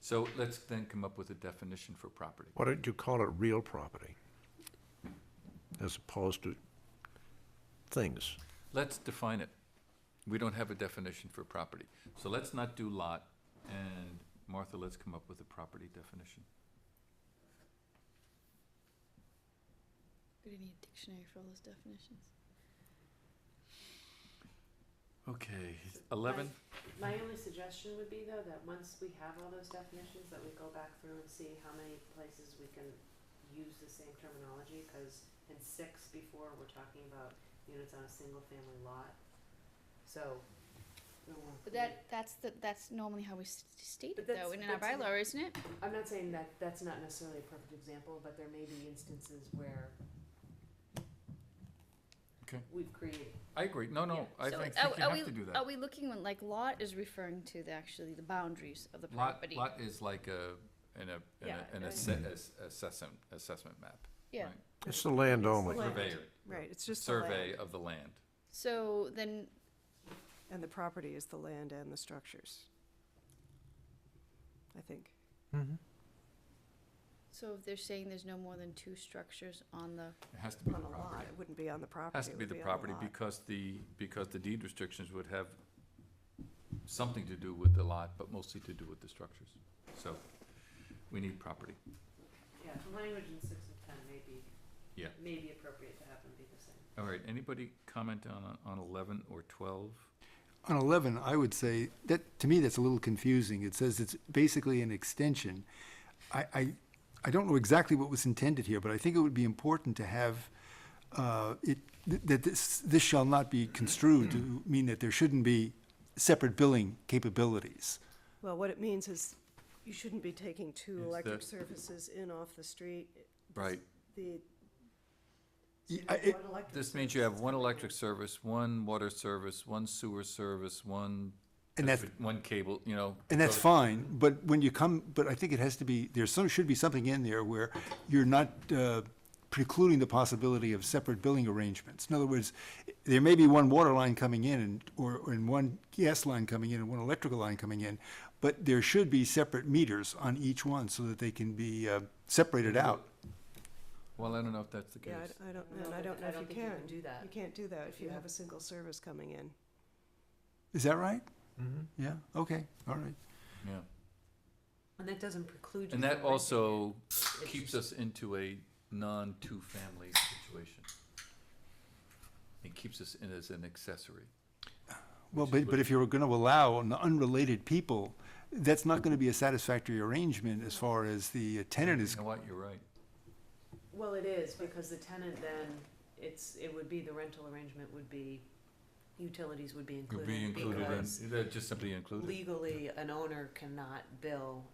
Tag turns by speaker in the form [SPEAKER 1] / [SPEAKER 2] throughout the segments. [SPEAKER 1] So let's then come up with a definition for property.
[SPEAKER 2] Why don't you call it real property? As opposed to things.
[SPEAKER 1] Let's define it. We don't have a definition for property. So let's not do lot, and Martha, let's come up with a property definition.
[SPEAKER 3] We're gonna need a dictionary for all those definitions.
[SPEAKER 1] Okay, eleven,
[SPEAKER 4] My only suggestion would be though, that once we have all those definitions, that we go back through and see how many places we can use the same terminology, cause in six before, we're talking about units on a single family lot. So. we won't
[SPEAKER 3] But that that's the that's normally how we s- state
[SPEAKER 4] But
[SPEAKER 3] it though,
[SPEAKER 4] that's-
[SPEAKER 3] in our
[SPEAKER 4] that's-
[SPEAKER 3] bylaw, isn't it?
[SPEAKER 4] be- I'm not saying that that's not necessarily a perfect example, but there may be instances where.
[SPEAKER 1] Okay.
[SPEAKER 4] We've created,
[SPEAKER 1] I agree, no, no, I
[SPEAKER 3] So
[SPEAKER 1] think
[SPEAKER 3] are-
[SPEAKER 1] think you
[SPEAKER 3] are
[SPEAKER 1] have
[SPEAKER 3] we-
[SPEAKER 1] to do
[SPEAKER 3] Are
[SPEAKER 1] that.
[SPEAKER 3] we looking when like lot is referring to the actually the boundaries of the
[SPEAKER 1] Lot,
[SPEAKER 3] property?
[SPEAKER 1] lot is like a, an, a- an,
[SPEAKER 4] Yeah,
[SPEAKER 1] a- an
[SPEAKER 4] I-
[SPEAKER 1] asse- assessment, assessment map.
[SPEAKER 3] Yeah.
[SPEAKER 1] right?
[SPEAKER 2] It's the land only.
[SPEAKER 5] Land.
[SPEAKER 1] Surveyor,
[SPEAKER 5] Right, it's just the
[SPEAKER 1] survey
[SPEAKER 5] land,
[SPEAKER 1] of the land.
[SPEAKER 3] So then
[SPEAKER 5] and the property is the land and the structures. I think.
[SPEAKER 3] so if they're saying there's no more than two structures on the
[SPEAKER 1] It has to be the
[SPEAKER 5] On a lot,
[SPEAKER 1] property.
[SPEAKER 5] it wouldn't be on the property.
[SPEAKER 1] Has to
[SPEAKER 5] it
[SPEAKER 1] be
[SPEAKER 5] would
[SPEAKER 1] the
[SPEAKER 5] on
[SPEAKER 1] property
[SPEAKER 5] lot.
[SPEAKER 1] because the, because the deed restrictions would have something to do with the lot, but mostly to do with the structures. So, we need property.
[SPEAKER 4] yeah, the language in six and ten may be.
[SPEAKER 1] Yeah.
[SPEAKER 4] May be appropriate to have them be the same.
[SPEAKER 1] All right, anybody comment on, on eleven or twelve?
[SPEAKER 6] On 11, I would say, that, to me, that's a little confusing. It says it's basically an extension. I, I, I don't know exactly what was intended here, but I think it would be important to have, uh, it, th- that this, this shall not be construed to mean that there shouldn't be separate billing capabilities.
[SPEAKER 5] Well, what it means is you shouldn't be taking two
[SPEAKER 1] Is
[SPEAKER 5] electric
[SPEAKER 1] that-
[SPEAKER 5] services in off the street.
[SPEAKER 1] Right.
[SPEAKER 5] The.
[SPEAKER 6] Y- I- it-
[SPEAKER 5] One electric
[SPEAKER 1] This means you have
[SPEAKER 5] service
[SPEAKER 1] one
[SPEAKER 5] is coming in.
[SPEAKER 1] electric service, one water service, one sewer service, one.
[SPEAKER 6] And that's-
[SPEAKER 1] One cable, you know.
[SPEAKER 6] And that's
[SPEAKER 1] so-
[SPEAKER 6] fine, but when you come, but I think it has to be, there's some, should be something in there where you're not uh, precluding the possibility of separate billing arrangements. In other words, there may be one water line coming in and, or, or and one gas line coming in and one electrical line coming in, but there should be separate meters on each one so that they can be uh, separated
[SPEAKER 1] Mm-hmm.
[SPEAKER 6] out.
[SPEAKER 1] Well, I don't know if that's the case.
[SPEAKER 5] Yeah, I- I don't know, and I
[SPEAKER 4] but
[SPEAKER 5] don't know if you
[SPEAKER 4] think you can do
[SPEAKER 5] can.
[SPEAKER 4] that.
[SPEAKER 5] You can't do that if
[SPEAKER 4] If
[SPEAKER 5] you
[SPEAKER 4] you
[SPEAKER 5] have
[SPEAKER 4] have-
[SPEAKER 5] a single service coming in.
[SPEAKER 6] Is that right?
[SPEAKER 1] Mm-hmm.
[SPEAKER 6] Yeah, okay, all right.
[SPEAKER 1] Yeah.
[SPEAKER 4] And that doesn't preclude you.
[SPEAKER 1] And that
[SPEAKER 4] from renting it.
[SPEAKER 1] also keeps us into a non-two-family situation. It keeps us in as an accessory. Which
[SPEAKER 6] Well,
[SPEAKER 1] is
[SPEAKER 6] but,
[SPEAKER 1] what-
[SPEAKER 6] but if you're gonna allow on the unrelated people, that's not gonna be a satisfactory arrangement as far as the tenant is
[SPEAKER 1] You know what, you're right.
[SPEAKER 4] Well, it is, because the tenant then, it's, it would be, the rental arrangement would be, utilities would be
[SPEAKER 1] Could be
[SPEAKER 4] included,
[SPEAKER 1] included in,
[SPEAKER 4] because
[SPEAKER 1] they're just simply included.
[SPEAKER 4] legally, an owner cannot bill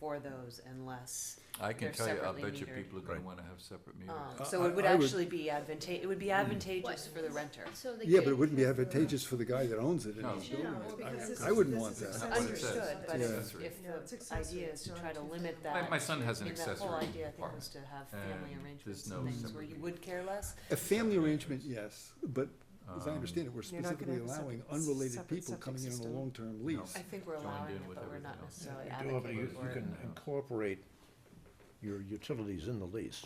[SPEAKER 4] for those unless,
[SPEAKER 1] I can
[SPEAKER 4] they're
[SPEAKER 1] tell you, I
[SPEAKER 4] separately
[SPEAKER 1] bet you
[SPEAKER 4] metered.
[SPEAKER 1] people are gonna
[SPEAKER 2] Right.
[SPEAKER 1] wanna have separate meters.
[SPEAKER 4] um,
[SPEAKER 6] Uh,
[SPEAKER 4] so
[SPEAKER 6] I-
[SPEAKER 4] it would
[SPEAKER 6] I would-
[SPEAKER 4] actually be advanta- it would
[SPEAKER 1] Mm.
[SPEAKER 4] be advantageous for the renter.
[SPEAKER 3] so the
[SPEAKER 6] Yeah, but it wouldn't be
[SPEAKER 3] gatekeeper-
[SPEAKER 6] advantageous for the guy that owns it and
[SPEAKER 1] No.
[SPEAKER 6] is doing
[SPEAKER 5] No,
[SPEAKER 6] it.
[SPEAKER 5] because this
[SPEAKER 6] I- I
[SPEAKER 5] is-
[SPEAKER 6] wouldn't
[SPEAKER 5] this
[SPEAKER 6] want
[SPEAKER 5] is
[SPEAKER 6] that.
[SPEAKER 5] accessory.
[SPEAKER 1] That's what it says.
[SPEAKER 4] Understood, but
[SPEAKER 6] Yeah.
[SPEAKER 4] if, if
[SPEAKER 5] No, it's
[SPEAKER 4] the
[SPEAKER 5] accessory,
[SPEAKER 4] idea is
[SPEAKER 5] it's
[SPEAKER 4] to
[SPEAKER 5] not
[SPEAKER 4] try to
[SPEAKER 5] two
[SPEAKER 4] limit
[SPEAKER 5] separate.
[SPEAKER 4] that.
[SPEAKER 1] My- my son has an
[SPEAKER 4] I mean, that whole
[SPEAKER 1] accessory
[SPEAKER 4] idea, I think, was to have
[SPEAKER 1] and
[SPEAKER 4] family
[SPEAKER 1] there's
[SPEAKER 4] arrangements
[SPEAKER 1] no
[SPEAKER 4] and things where
[SPEAKER 1] separate
[SPEAKER 4] you would care less.
[SPEAKER 6] A family arrangement, yes, but
[SPEAKER 2] Um,
[SPEAKER 6] as I
[SPEAKER 1] Um,
[SPEAKER 6] understand it, we're
[SPEAKER 5] You're not gonna
[SPEAKER 6] specifically
[SPEAKER 5] have a
[SPEAKER 6] allowing
[SPEAKER 5] separate-
[SPEAKER 6] unrelated
[SPEAKER 5] separate
[SPEAKER 6] people
[SPEAKER 5] septic
[SPEAKER 6] coming in on a
[SPEAKER 5] system.
[SPEAKER 6] long-term lease.
[SPEAKER 4] I think we're
[SPEAKER 1] Joined
[SPEAKER 4] allowing
[SPEAKER 1] in
[SPEAKER 4] it,
[SPEAKER 1] with
[SPEAKER 4] but we're not
[SPEAKER 1] everything else.
[SPEAKER 2] You
[SPEAKER 4] necessarily
[SPEAKER 2] do have-
[SPEAKER 4] advocating
[SPEAKER 2] you-
[SPEAKER 4] for
[SPEAKER 2] You
[SPEAKER 4] it.
[SPEAKER 2] can incorporate your utilities in the lease.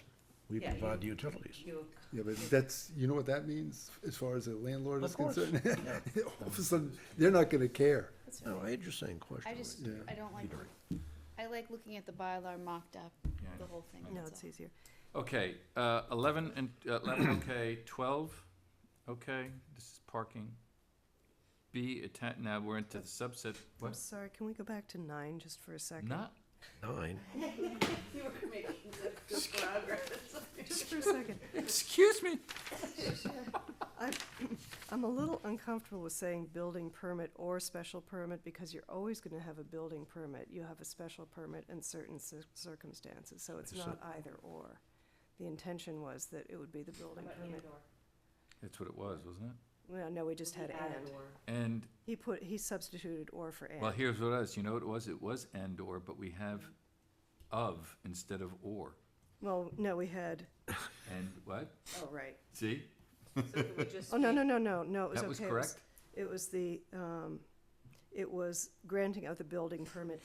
[SPEAKER 2] We
[SPEAKER 4] Yeah, you-
[SPEAKER 2] provide the utilities.
[SPEAKER 4] You
[SPEAKER 6] Yeah, but that's, you know what that means as far as a landlord is
[SPEAKER 2] Of course.
[SPEAKER 6] concerned? All of a sudden, they're not gonna care.
[SPEAKER 3] That's
[SPEAKER 2] No,
[SPEAKER 3] fine.
[SPEAKER 2] Oh, I had your same question.
[SPEAKER 3] I just
[SPEAKER 6] Yeah.
[SPEAKER 3] I don't like
[SPEAKER 2] Either.
[SPEAKER 3] I like looking at the bylaw mocked up
[SPEAKER 1] Yeah, I
[SPEAKER 3] the
[SPEAKER 1] know.
[SPEAKER 3] whole thing.
[SPEAKER 5] No,
[SPEAKER 3] that's
[SPEAKER 5] it's
[SPEAKER 3] all.
[SPEAKER 5] easier.
[SPEAKER 1] Okay, uh, eleven and, uh, eleven, okay, twelve, okay, this is parking. B, atta- now we're into the subset,
[SPEAKER 5] I'm
[SPEAKER 1] what,
[SPEAKER 5] sorry, can we go back to nine just for a second?
[SPEAKER 1] not,
[SPEAKER 2] Nine.
[SPEAKER 4] You were making good progress.
[SPEAKER 5] Just for a second.
[SPEAKER 1] excuse me,
[SPEAKER 5] I'm a little uncomfortable with saying building permit or special permit because you're always gonna have a building permit. You have a special permit in certain cir- circumstances, so it's
[SPEAKER 2] Is
[SPEAKER 5] not either or. The intention was that it would be the building permit.
[SPEAKER 1] that's what it was, wasn't it?
[SPEAKER 5] Well, no, we just had and.
[SPEAKER 1] And,
[SPEAKER 5] He put, he substituted or for and.
[SPEAKER 1] well, here's what it was, you know what it was, it was and or, but we have of instead of or,
[SPEAKER 5] Well, no, we had,
[SPEAKER 1] and what,
[SPEAKER 5] oh, right.
[SPEAKER 1] see,
[SPEAKER 5] Oh, no, no, no, no, no, it was okay.
[SPEAKER 1] that was
[SPEAKER 5] It was-
[SPEAKER 1] correct?
[SPEAKER 5] It was the, um, it was granting of the building permit